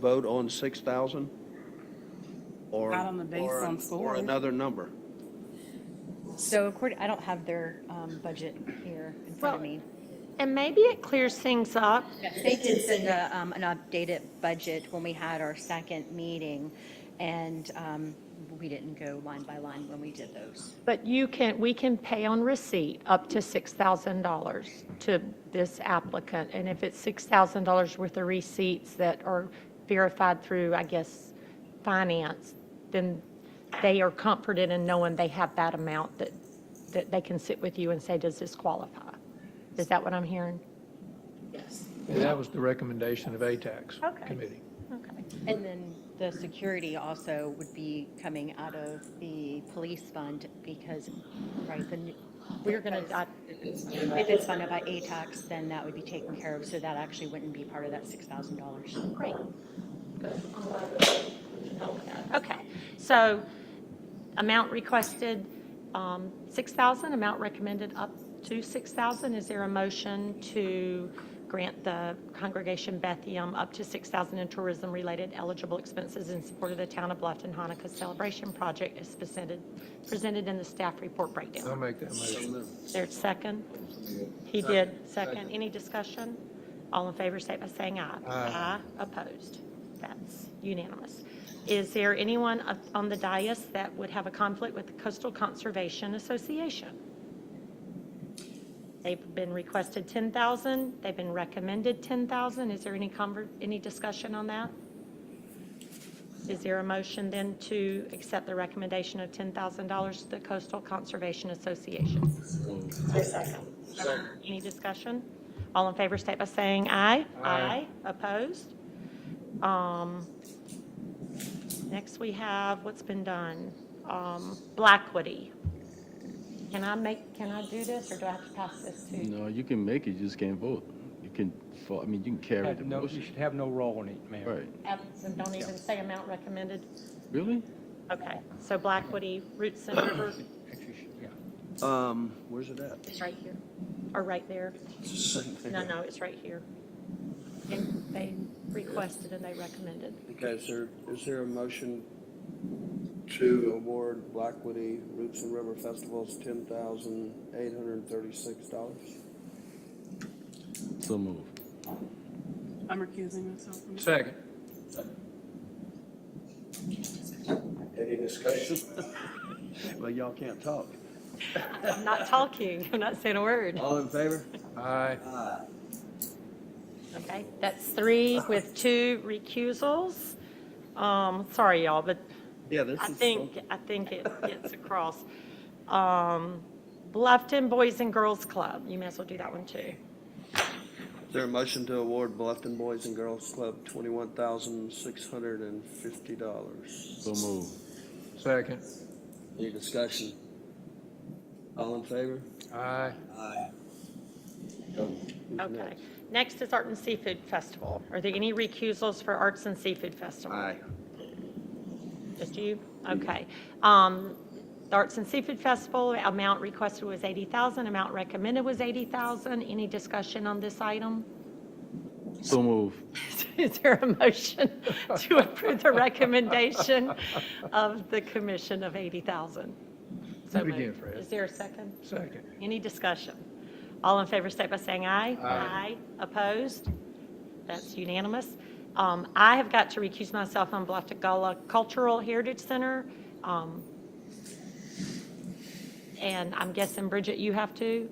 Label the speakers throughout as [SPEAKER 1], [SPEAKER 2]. [SPEAKER 1] vote on 6,000? Or
[SPEAKER 2] Not on the base
[SPEAKER 1] or-
[SPEAKER 2] on
[SPEAKER 1] Or
[SPEAKER 2] four.
[SPEAKER 1] another number?
[SPEAKER 3] So according, I don't have their um, budget here in front of
[SPEAKER 4] Well-
[SPEAKER 3] me.
[SPEAKER 4] And maybe it clears things up.
[SPEAKER 3] They did send a, um, an updated budget when we had our second meeting, and um, we didn't go line by line when we did those.
[SPEAKER 4] But you can, we can pay on receipt up to $6,000 to this applicant. And if it's $6,000 worth of receipts that are verified through, I guess, finance, then they are comforted in knowing they have that amount that, that they can sit with you and say, does this qualify? Is that what I'm hearing?
[SPEAKER 5] And that was the recommendation of ATAX
[SPEAKER 4] Okay.
[SPEAKER 5] committee.
[SPEAKER 4] Okay.
[SPEAKER 3] And then the security also would be coming out of the police fund because, right, then we're going to, if it's funded by ATAX, then that would be taken care of, so that actually wouldn't be part of that $6,000.
[SPEAKER 4] Great. Okay, so amount requested, um, 6,000, amount recommended up to 6,000. Is there a motion to grant the Congregation Bethiam up to 6,000 in tourism-related eligible expenses in support of the Town of Bluffton Hanukkah Celebration Project as presented, presented in the staff report
[SPEAKER 5] I'll
[SPEAKER 4] breakdown?
[SPEAKER 5] make that motion.
[SPEAKER 4] Is there a second? He did, second. Any discussion? All in favor, say by saying aye. Aye. Opposed? That's unanimous. Is there anyone up- on the dais that would have a conflict with the Coastal Conservation Association? They've been requested 10,000, they've been recommended 10,000. Is there any conver, any discussion on that? Is there a motion then to accept the recommendation of $10,000 to the Coastal Conservation Association? Any discussion? All in favor, state by saying aye. Aye. Opposed? Um, Next, we have what's been done, Um, Blackwoody. Can I make, can I do this, or do I have to pass this to?
[SPEAKER 6] No, you can make it, you just can't vote. You can, fo- I mean, you can carry
[SPEAKER 7] Have
[SPEAKER 6] the
[SPEAKER 7] no, you
[SPEAKER 6] motion.
[SPEAKER 7] should have no role in it, ma'am.
[SPEAKER 6] Right,
[SPEAKER 4] Absent, Don't even say amount recommended.
[SPEAKER 6] really?
[SPEAKER 4] Okay, so Blackwoody, Roots and River
[SPEAKER 7] Actually, should- yeah.
[SPEAKER 1] Um, where's it at?
[SPEAKER 4] is right here, or right there. No, no, it's right here. And they requested and they recommended.
[SPEAKER 1] Okay, is there, is there a motion to award Blackwoody Roots and River Festivals $10,836?
[SPEAKER 6] So move.
[SPEAKER 2] I'm recusing myself from this.
[SPEAKER 5] Second.
[SPEAKER 1] Any discussion? Well, y'all can't talk.
[SPEAKER 4] I'm not talking, I'm not saying a word.
[SPEAKER 1] All in favor?
[SPEAKER 5] Aye.
[SPEAKER 4] Okay, that's three with two recusals. Um, sorry, y'all, but
[SPEAKER 1] Yeah, this
[SPEAKER 4] I
[SPEAKER 1] is.
[SPEAKER 4] think, I think it gets across. Um, Bluffton Boys and Girls Club, you may as well do that one too.
[SPEAKER 1] Is there a motion to award Bluffton Boys and Girls Club $21,650?
[SPEAKER 6] So move.
[SPEAKER 5] Second.
[SPEAKER 1] Any discussion? All in favor?
[SPEAKER 5] Aye.
[SPEAKER 4] Okay. Next is Art and Seafood Festival. Are there any recusals for Arts and Seafood Festival? Just you? Okay. Um, the Arts and Seafood Festival, amount requested was 80,000, amount recommended was 80,000. Any discussion on this item?
[SPEAKER 6] So move.
[SPEAKER 4] Is there a motion to approve the recommendation of the commission of 80,000?
[SPEAKER 5] Do
[SPEAKER 4] So
[SPEAKER 5] it again,
[SPEAKER 4] moved.
[SPEAKER 5] Fred.
[SPEAKER 4] Is there a second?
[SPEAKER 5] Second.
[SPEAKER 4] Any discussion? All in favor, state by saying aye.
[SPEAKER 5] Aye.
[SPEAKER 4] Opposed? That's unanimous. Um, I have got to recuse myself on Bluff-Gullah Cultural Heritage Center. Um, And I'm guessing, Bridget, you have to,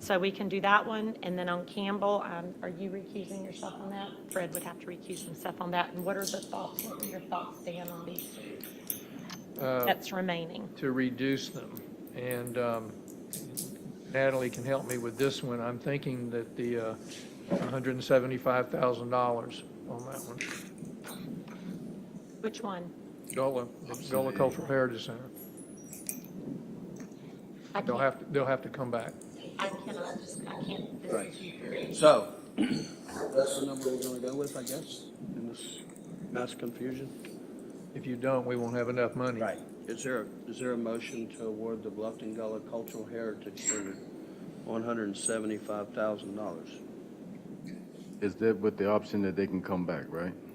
[SPEAKER 4] so we can do that one. And then on Campbell, um, are you recusing yourself on that? Fred would have to recuse himself on that. And what are the thoughts, what are your thoughts, Dan, on these
[SPEAKER 5] Uh,
[SPEAKER 4] that's remaining?
[SPEAKER 5] to reduce them. And um, Natalie can help me with this one. I'm thinking that the uh, $175,000 on that one.
[SPEAKER 4] Which one?
[SPEAKER 5] Gullah, Gullah Cultural Heritage Center.
[SPEAKER 4] I
[SPEAKER 5] They'll
[SPEAKER 4] can't,
[SPEAKER 5] have, to. they'll have to come back.
[SPEAKER 4] I cannot, I can't, this
[SPEAKER 1] Right.
[SPEAKER 4] is
[SPEAKER 1] So, that's the number we're gonna go with, I guess, in this mass confusion?
[SPEAKER 5] If you don't, we won't have enough money.
[SPEAKER 1] Is there, is there a motion to award the Bluffton Gullah Cultural Heritage Center one hundred and seventy-five thousand dollars?
[SPEAKER 6] Is that with the option that they can come back, right?